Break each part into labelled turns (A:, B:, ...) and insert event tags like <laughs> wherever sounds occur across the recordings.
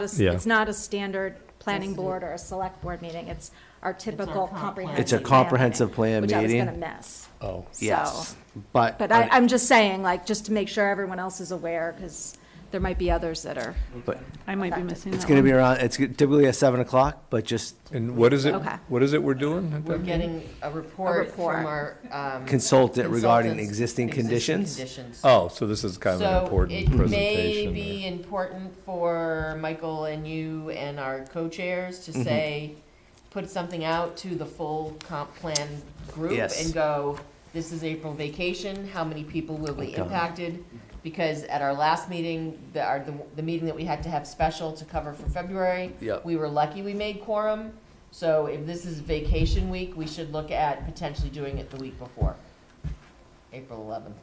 A: a s-
B: Yeah.
A: It's not a standard planning board or a select board meeting. It's our typical
C: comp plan.
A: comprehensive.
D: It's a
A: plan
D: comprehensive plan
A: Which I was
D: meeting.
A: going to miss.
D: Oh,
A: So-
D: yes. But.
A: But I, I'm just saying, like, just to make sure everyone else is aware, because there might be others that are.
D: But
C: I might be missing that
D: it's gonna be
C: one.
D: around, it's typically at seven o'clock, but just
B: And what is it,
A: Okay.
B: what is it we're doing? at
C: We're
B: that?
C: getting a report
A: report.
C: from our. um,
D: Consultant regarding
C: consultants,
D: existing conditions?
C: conditions.
B: Oh, so this is kind of an important
C: So it may
B: presentation.
C: be
B: there.
C: important for Michael and you and our co-chairs
D: Mm-hmm.
C: to say, put something out to the full comp plan group
D: Yes.
C: and go, this is April vacation, how many people will be
D: God.
C: impacted? Because at our last meeting, the, our, the, the meeting that we had to have special to cover for February,
D: Yep.
C: we were lucky we made quorum. So if this is vacation week, we should look at potentially doing it the week before, April eleventh.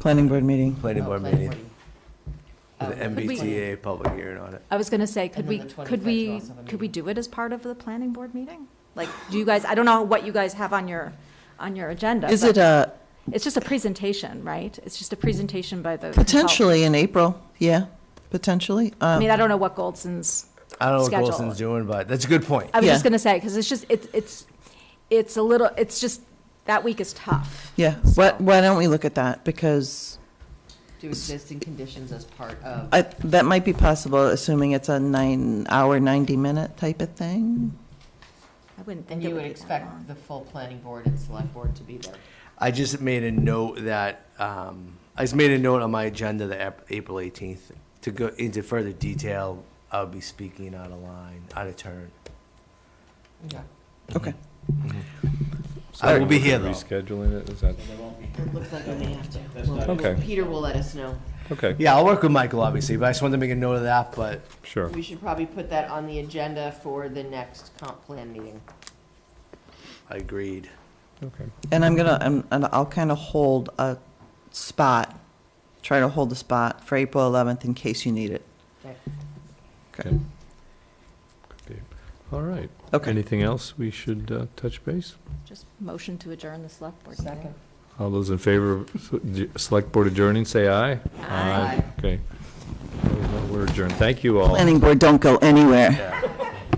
E: Planning board meeting.
D: planning
C: Oh,
D: board
C: planning
D: meeting
C: board.
D: with
C: Um,
D: an MBTA public hearing on it.
A: I was going to say, could
C: And
A: we,
C: then the
A: could
C: 25th you
A: we,
C: also have a
A: could we
C: meeting.
A: do it as part of the planning board meeting? Like, do you guys, I don't know what you guys have on your, on your agenda.
E: Is
A: but
E: it uh,
A: It's just a presentation, right? It's just a presentation by the. consultant.
E: potentially in April? Yeah, potentially.
A: I
E: Um,
A: mean, I don't know what Goldson's
D: I don't know what
A: Schedule.
D: Golson's doing, but that's a good point.
A: I was just
E: Yeah.
A: gonna say, because it's just, it's, it's, it's a little, it's just, that week is tough.
E: Yeah, what, why don't we look at that? Because
C: Do existing conditions as part of,
E: I, that might be possible, assuming it's a nine-hour, 90-minute type of thing.
A: I wouldn't
C: and
A: think it
C: you
A: would
C: would
A: be that
C: expect
A: long.
C: the full planning board and select board to be there.
D: I just made a note that, um, I just made a note on my agenda that Ap- April eighteenth, to go into further detail, I'll be speaking out of line, out of turn.
C: Okay.
E: Okay.
D: So I will be
B: Looking
D: here
B: at
D: though.
B: Rescheduling it, is that,
C: It looks like we may have to. Well,
B: okay,
C: Peter will let us know.
B: okay,
D: Yeah, I'll work with Michael, obviously, but I just wanted to make a note of that, but
B: sure.
C: We should probably put that on the agenda for the next comp plan meeting.
D: I agreed.
B: Okay.
E: And I'm gonna, I'm- and I'll kind of hold a spot, try to hold a spot for April 11th in case you need it.
C: Okay.
E: Okay.
B: All right.
E: Okay.
B: Anything else we should uh, touch base?
A: Just motion to adjourn the select board meeting.
B: All those in favor of s- d- select board adjourning, say aye.
C: Aye.
B: Okay. We're adjourned. Thank you all.
E: Planning board don't go anywhere.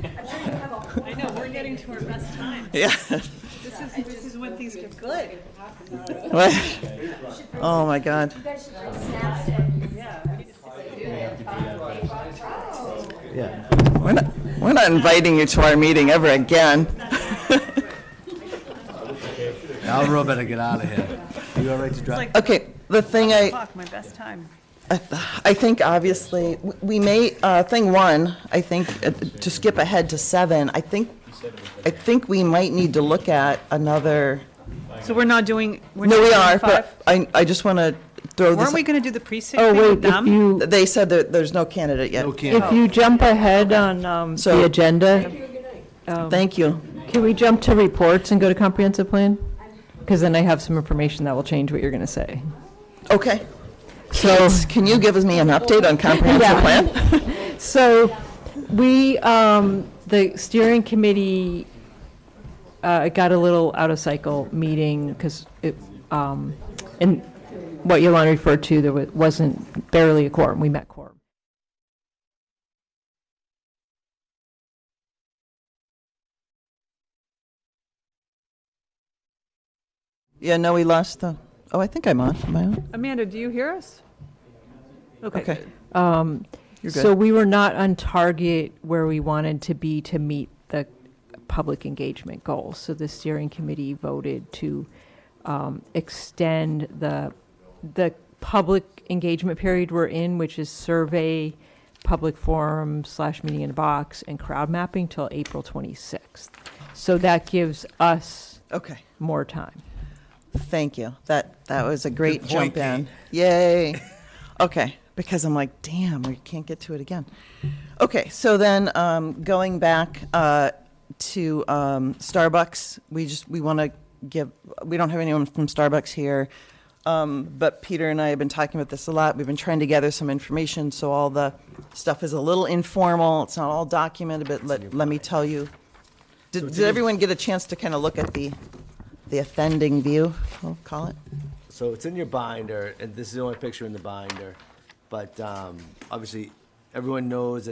F: I know, we're getting to our best time.
E: <laughs> Yeah.
F: This is, this is when things get good.
E: Oh, my God.
D: Yeah.
E: We're not, we're not inviting you to our meeting ever again.
D: Now Rob better get out of here. You all right to drive?
E: Okay, the thing I.
F: Fuck, my best time.
E: I I think obviously, w- we may, uh, thing one, I think, uh, to skip ahead to seven, I think, I think we might need to look at another,
F: So we're not doing, we're not
E: no, we
F: doing
E: are,
F: five?
E: but I, I just want to throw this.
F: Weren't we gonna do the precinct
E: Oh,
F: thing
E: wait,
F: with
E: if
F: them?
E: you. They said that there's no candidate yet.
D: No can't.
G: If you jump ahead on um,
E: So-
G: the agenda,
E: Thank you.
G: can we jump to reports and go to comprehensive plan? Because then I have some information that will change what you're going to say.
E: Okay.
G: So,
E: Can you give us me an update on comprehensive
G: Yeah.
E: plan?
G: so we, um, the steering committee uh, it got a little out of cycle meeting because it, um, and what Yolanda referred to, there wa- wasn't barely a quorum. We met quorum.
E: Yeah, no, we lost the, oh, I think I'm on, am I on?
F: Amanda, do you hear us? Okay.
E: Okay.
G: Um,
E: You're
G: So
E: good.
G: we were not on target where we wanted to be to meet the public engagement goals. So the steering committee voted to um, extend the, the public engagement period we're in, which is survey, public forum slash meeting in a box, and crowd mapping till April 26th. So that gives us
E: Okay.
G: more time.
E: Thank you. That, that was a great
D: Good point,
E: jump in.
D: <laughs>
E: Yay. Okay, because I'm like, damn, we can't get to it again. Okay, so then, um, going back, uh, to, um, Starbucks, we just, we want to give, we don't have anyone from Starbucks here. Um, but Peter and I have been talking about this a lot. We've been trying to gather some information, so all the stuff is a little informal. It's not all documented, but let, let me tell you. Did, did everyone get a chance to kind of look at the, the offending view, we'll call it?
D: So it's in your binder, and this is the only picture in the binder, but um, obviously, everyone knows